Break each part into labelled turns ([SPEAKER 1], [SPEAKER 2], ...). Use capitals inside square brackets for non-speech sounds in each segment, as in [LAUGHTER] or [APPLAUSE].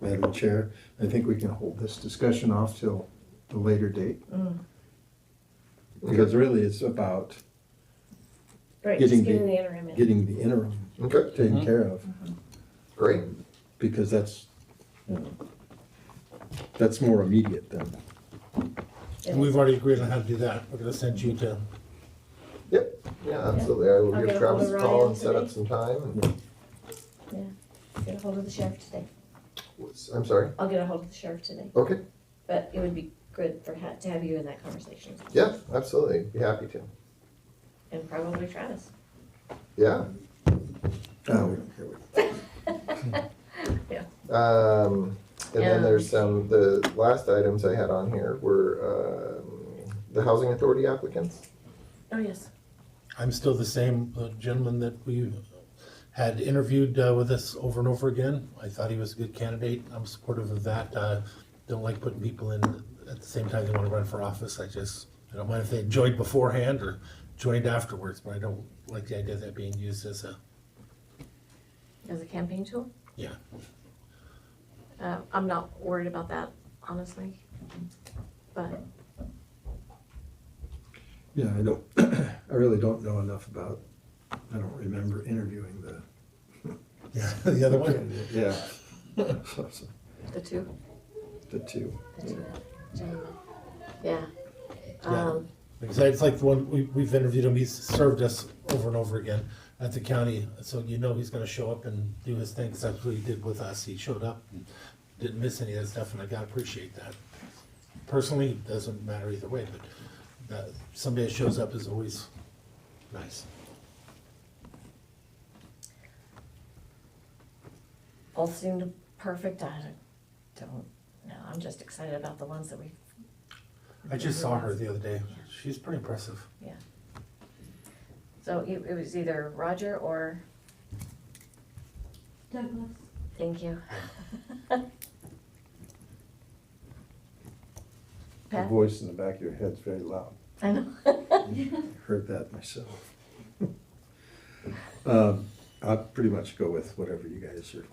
[SPEAKER 1] Madam Chair. I think we can hold this discussion off till a later date. Because really, it's about
[SPEAKER 2] Right,
[SPEAKER 1] Getting
[SPEAKER 2] just getting
[SPEAKER 1] the-
[SPEAKER 2] the interim in.
[SPEAKER 1] getting the interim
[SPEAKER 3] Okay,
[SPEAKER 1] taken care of,
[SPEAKER 3] great.
[SPEAKER 1] because that's, you know, that's more immediate than,
[SPEAKER 4] And we've already agreed on how to do that. We're gonna send you to,
[SPEAKER 3] Yep, yeah, absolutely. I will
[SPEAKER 2] I'll
[SPEAKER 3] give
[SPEAKER 2] get ahold
[SPEAKER 3] Travis a
[SPEAKER 2] of
[SPEAKER 3] call
[SPEAKER 2] Ryan
[SPEAKER 3] and set up
[SPEAKER 2] today.
[SPEAKER 3] some time. and-
[SPEAKER 2] Get a hold of the sheriff today.
[SPEAKER 3] I'm sorry.
[SPEAKER 2] I'll get a hold of the sheriff today,
[SPEAKER 3] Okay,
[SPEAKER 2] but it would be good for, ha- to have you in that conversation,
[SPEAKER 3] yeah, absolutely. Be happy to.
[SPEAKER 2] and probably Travis.
[SPEAKER 3] Yeah.
[SPEAKER 1] oh, we don't care what
[SPEAKER 3] Um, and
[SPEAKER 2] Um,
[SPEAKER 3] then there's some, the last items I had on here were, um, the housing authority applicants.
[SPEAKER 2] Oh, yes.
[SPEAKER 4] I'm still the same uh, gentleman that we had interviewed uh, with us over and over again. I thought he was a good candidate. I'm supportive of that. Uh, Don't like putting people in at the same time they wanna run for office. I just, I don't mind if they joined beforehand or joined afterwards, but I don't like the idea of that being used as a,
[SPEAKER 2] As a campaign tool?
[SPEAKER 4] Yeah. [LAUGHS]
[SPEAKER 2] Uh, I'm not worried about that, honestly, but,
[SPEAKER 1] Yeah, I don't, [CLEARS THROAT] I really don't know enough about, I don't remember interviewing the.
[SPEAKER 4] yeah, the other one.
[SPEAKER 1] candidate. Yeah. So, so,
[SPEAKER 2] the two,
[SPEAKER 1] [LAUGHS] The two.
[SPEAKER 2] the two, gentlemen. yeah.
[SPEAKER 4] Yeah.
[SPEAKER 2] Um,
[SPEAKER 4] Because it's like the one, we, we've interviewed him, he's served us over and over again at the county, so you know he's gonna show up and do his thing, 'cause that's what he did with us, he showed up and didn't miss any of that stuff, and I gotta appreciate that. Personally, it doesn't matter either way, but that, somebody that shows up is always nice.
[SPEAKER 2] both seemed perfect, I don't know, I'm just excited about the ones that we,
[SPEAKER 4] I just saw her the other day, she's pretty impressive.
[SPEAKER 2] so it, it was either Roger or,
[SPEAKER 5] Douglas.
[SPEAKER 2] thank you.
[SPEAKER 1] The
[SPEAKER 2] Pat?
[SPEAKER 1] voice in the back of your head's very loud.
[SPEAKER 2] I know.
[SPEAKER 1] Heard that myself. [LAUGHS] Um, I'll pretty much go with whatever you guys are.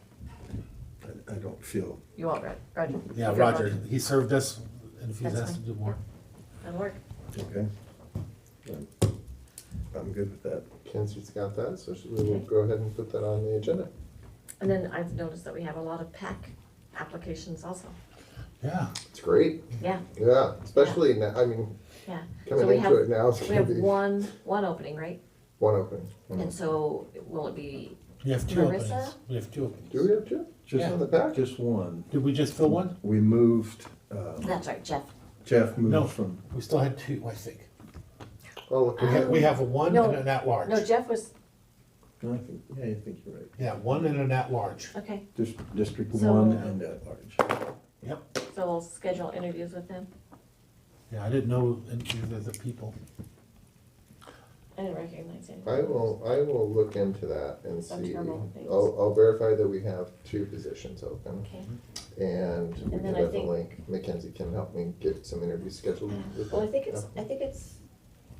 [SPEAKER 1] I- I don't feel,
[SPEAKER 2] You want Rod, Roger?
[SPEAKER 4] Yeah,
[SPEAKER 2] Okay,
[SPEAKER 4] Roger, he served us, and if he's
[SPEAKER 2] That's
[SPEAKER 4] asked to do more,
[SPEAKER 2] That'll work.
[SPEAKER 1] okay? I'm- I'm good with that.
[SPEAKER 3] Kenzie's got that, so she- we will go ahead and put that on the agenda.
[SPEAKER 2] And then I've noticed that we have a lot of PAC applications also.
[SPEAKER 4] yeah.
[SPEAKER 3] It's great.
[SPEAKER 2] Yeah.
[SPEAKER 3] Yeah, especially now, I mean,
[SPEAKER 2] Yeah. So
[SPEAKER 3] coming
[SPEAKER 2] we have-
[SPEAKER 3] into it now, it's
[SPEAKER 2] We
[SPEAKER 3] gonna
[SPEAKER 2] have
[SPEAKER 3] be
[SPEAKER 2] one, one opening, right?
[SPEAKER 3] one opening.
[SPEAKER 2] And so will it be,
[SPEAKER 4] We have two
[SPEAKER 2] Marissa?
[SPEAKER 4] openings, we have two openings.
[SPEAKER 3] Do we have two?
[SPEAKER 1] Just
[SPEAKER 3] On the back?
[SPEAKER 1] Just one.
[SPEAKER 4] Did we just fill one?
[SPEAKER 1] We moved, uh,
[SPEAKER 2] that's right, Jeff.
[SPEAKER 1] Jeff
[SPEAKER 4] No.
[SPEAKER 1] moved from,
[SPEAKER 4] We still had two, I think.
[SPEAKER 3] Oh, look,
[SPEAKER 4] We have, we have a one
[SPEAKER 2] No.
[SPEAKER 4] and an at-large.
[SPEAKER 2] No, Jeff was,
[SPEAKER 1] No, I think, yeah, I think you're right.
[SPEAKER 4] Yeah, one and an at-large.
[SPEAKER 2] okay,
[SPEAKER 1] Dis- District
[SPEAKER 2] So-
[SPEAKER 1] one and at large.
[SPEAKER 4] Yep.
[SPEAKER 2] so we'll schedule interviews with him.
[SPEAKER 4] Yeah, I didn't know any of the people.
[SPEAKER 2] I didn't recognize him.
[SPEAKER 3] I will, I will look into that and
[SPEAKER 2] Some
[SPEAKER 3] see.
[SPEAKER 2] terminal things.
[SPEAKER 3] I'll, I'll verify that we have two positions open
[SPEAKER 2] Okay.
[SPEAKER 3] and we
[SPEAKER 2] And
[SPEAKER 3] can
[SPEAKER 2] then I think-
[SPEAKER 3] definitely, Mackenzie can help me get some interviews scheduled with them.
[SPEAKER 2] Well, I think it's, I think it's,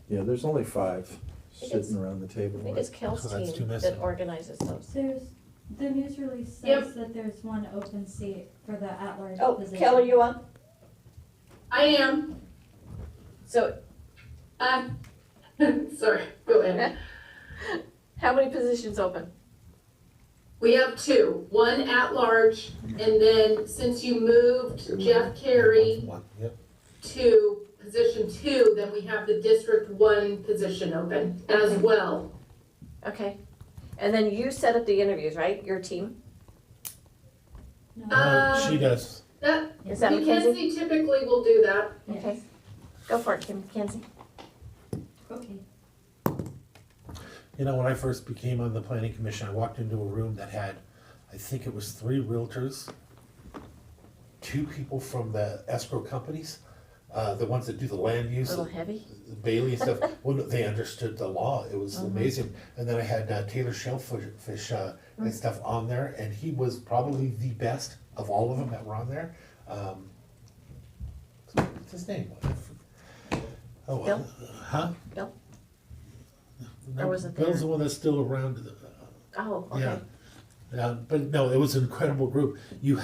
[SPEAKER 1] Yeah, there's only five
[SPEAKER 2] think it's-
[SPEAKER 1] sitting around the table.
[SPEAKER 2] I think it's
[SPEAKER 4] So
[SPEAKER 2] Kel's
[SPEAKER 4] that's two
[SPEAKER 2] team that
[SPEAKER 4] missing.
[SPEAKER 2] organizes those.
[SPEAKER 5] There's, the news release says that there's one open seat for the at-large
[SPEAKER 2] Oh,
[SPEAKER 5] position.
[SPEAKER 2] Kel, are you on?
[SPEAKER 6] I am.
[SPEAKER 2] So
[SPEAKER 6] Um, [LAUGHS] sorry, go ahead.
[SPEAKER 2] how many positions open?
[SPEAKER 6] We have two, one at large, and then since you moved Jeff Carey
[SPEAKER 4] One, Yep.
[SPEAKER 6] to position two, then we have the district one position open as well.
[SPEAKER 2] Okay. And then you set up the interviews, right? Your team?
[SPEAKER 5] No,
[SPEAKER 4] No, she
[SPEAKER 6] Um,
[SPEAKER 4] does.
[SPEAKER 6] that,
[SPEAKER 2] Is that Mackenzie?
[SPEAKER 6] Mackenzie typically will do that.
[SPEAKER 5] yes,
[SPEAKER 2] Okay. Go for it, Kim, Mackenzie.
[SPEAKER 5] okay.
[SPEAKER 4] You know, when I first became on the planning commission, I walked into a room that had, I think it was three realtors, two people from the escrow companies, uh, the ones that do the land
[SPEAKER 2] A
[SPEAKER 4] use,
[SPEAKER 2] little heavy?
[SPEAKER 4] the
[SPEAKER 2] [LAUGHS]
[SPEAKER 4] Bailey and stuff. Well, no, they understood the law. It
[SPEAKER 2] Uh-huh.
[SPEAKER 4] was amazing. And then I had uh, Taylor Shellfish fish, uh,
[SPEAKER 2] Mm.
[SPEAKER 4] and stuff on there, and he was probably the best of all of them that were on there. Um, what's his name? Oh, well. huh?
[SPEAKER 2] Bill?
[SPEAKER 4] No,
[SPEAKER 2] Or was it
[SPEAKER 4] Bill's
[SPEAKER 2] there?
[SPEAKER 4] the one that's still around. uh,
[SPEAKER 2] Oh, okay.
[SPEAKER 4] Yeah. Yeah, but no, it was an incredible group. You